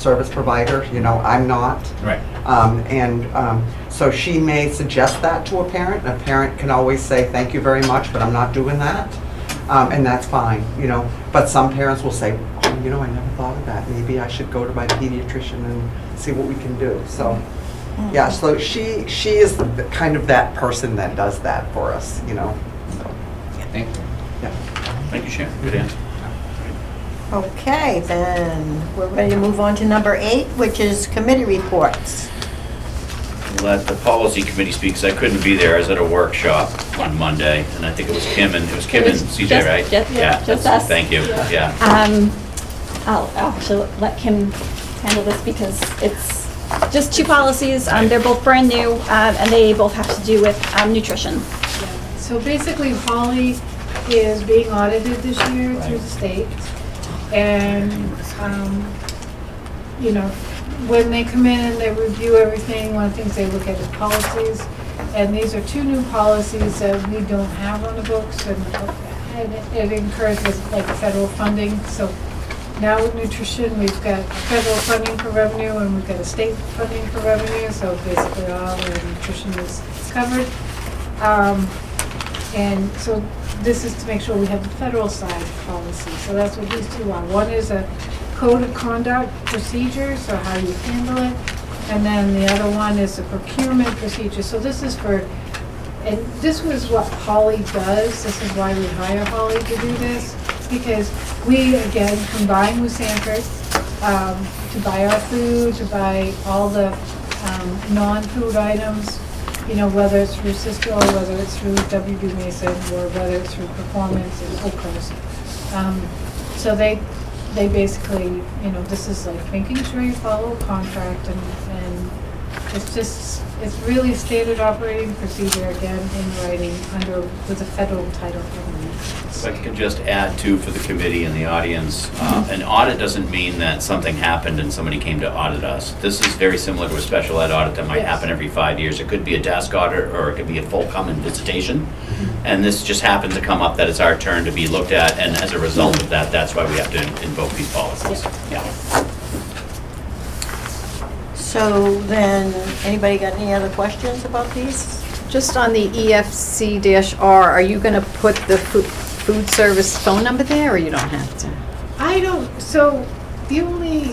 service provider, you know, I'm not. Right. Um, And um, so she may suggest that to a parent, and a parent can always say, thank you very much, but I'm not doing that, Um, and that's fine, you know. But some parents will say, oh, you know, I never thought of that, maybe I should go to my pediatrician and see what we can do, so. Mm. Yeah, so she, she is the- the kind of that person that does that for us, you know, so, Thank you. yeah. Thank you, Sharon. Good answer. Okay, then, we're ready to move on to number eight, which is committee reports. Let the policy committee speak, 'cause I couldn't be there. I was at a workshop on Monday, and I think it was Kim and, it was Kim It and was CJ, just- right? ju- yeah, just that's- us. Thank you, yeah. Um, I'll actually let Kim handle this because it's just two policies. Um, they're both brand new, um, and they both have to do with, um, nutrition. So basically, Holly is being audited this year through the state. And, um, you know, when they come in, they review everything. One of the things they look at is policies. And these are two new policies that we don't have on the books and and it encourages like federal funding. So now with nutrition, we've got federal funding for revenue and we've got a state funding for revenue. So basically, all the nutrition is is covered. Um, and so this is to make sure we have the federal side policy. So that's what these two are. One is a code of conduct procedure, so how you handle it. And then the other one is a procurement procedure. So this is for, and this was what Holly does. This is why we hire Holly to do this. Because we, again, combine with Sanford um, to buy our food, to buy all the um, non-food items you know, whether it's through Cisco, whether it's through WB Mason, or whether it's through Performance and Oakers. Um, So they, they basically, you know, this is like making sure you follow contract and, and it's just, it's really standard operating procedure again in writing under, with a federal title. If I could just add too for the committee and the audience, uh, an audit doesn't mean that something happened and somebody came to audit us. This is very similar to a special ed audit that might Yes. happen every five years. It could be a desk audit or it could be a full common visitation. And this just happened to come up that it's our turn to be looked at, and as a result of that, that's why we have to invoke these policies. Yeah. So then, anybody got any other questions about these? Just on the E EFC-R, are you going to put the fu- food service phone number there, or you don't have to? I don't, so the only.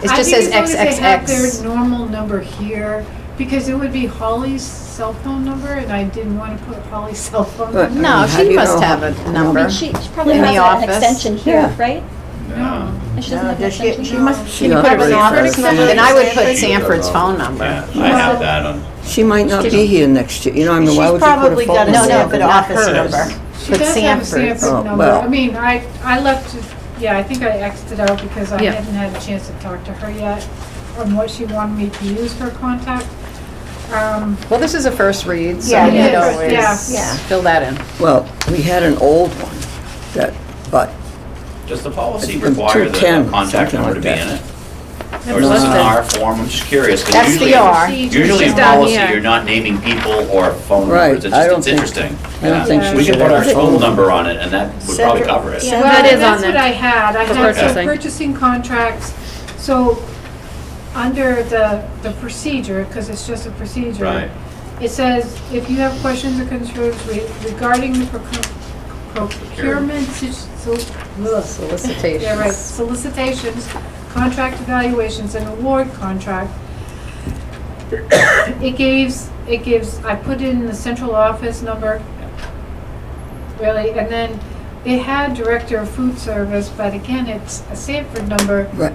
It I just think says as long as they have XXX. Their normal number here, because it would be Holly's cell phone number, and I didn't want to put Holly's cell phone But- number. No, how do she you must know? have a I number. mean, she, she probably In the has a- an office. extension here, Yeah. right? No. And she doesn't No, have an does she- extension? She must, She Put up already an office said- number, then I would put Sanford's Sanford's phone number. Yeah, I have that on. She might not be here next year, you know, I mean, why she's would you put probably a got phone a No, no, number? Sanford not office hers. number. She But does have a Sanford's. Sanford Oh, number. well. I mean, I, I left, it- yeah, I think I Xed it out because I Yeah. hadn't had a chance to talk to her yet on what she wanted me to use for contact. Um, Well, this is a first read, so Yeah, it you could is. Yeah. always fill that in. Well, we had an old one that, but Does the policy It's require the 210, contact something number to like be in that. it? Or is this an R form? I'm just curious. 'cause That's the usually- R. Usually in She's down policy, here. you're not naming people or phone Right, numbers. It's I just, don't it's think- interesting. I Yeah. don't think she We could should put our have. phone number on it and that would probably Separate- cover it. yeah. That Well, is on that's there. what I had, I had For some purchasing. purchasing contracts, so, under the, the procedure, because it's just a procedure. Right. It says, if you have questions or concerns re- regarding the procure- procurement, si- so, ugh. Solicitations. Yeah, right, solicitations, contract evaluations, and award contract. It gives, it gives, I put in the central office number, really, and then it had director of food service, but again, it's a Sanford number, Right,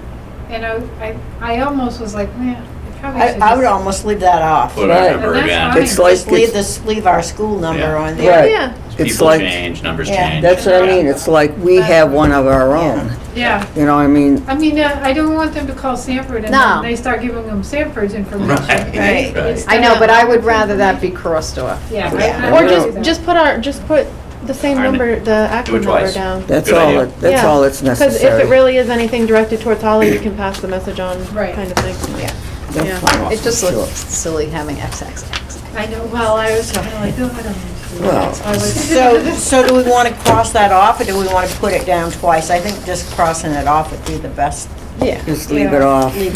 and I, I, I almost was like, man, it probably I, should I would just- almost leave that off. Put our Right. number And that's again. fine. it's like, Just leave it's, this, leave our school number Yeah. on there. right, Yeah. it's People like, change, numbers Yeah. change. that's what I mean, it's like we have one of our own, Yeah, you know, I mean, I mean, uh, I don't want them to call Sanford and No. then they start giving them Sanford's information. Right, right. It's I know, not- but I would rather that be crossed off. Yeah. Yeah. I- I Or would do just, that. just put our, just put the same Iron it. number, the Do it actual number twice. down. that's Good idea. all, it- that's Yeah. all that's Because if it necessary. really is anything directed towards Holly, you can pass the message on, Right. kind of thing. Yeah. That's fine, It just sure. looks silly having XXX. I know, well, I was kind of like, oh, I don't need to do that. So I was- So, so do we want to cross that off, or do we want to put it down twice? I think just crossing it off would be the best Yeah. Just leave it Yeah. off.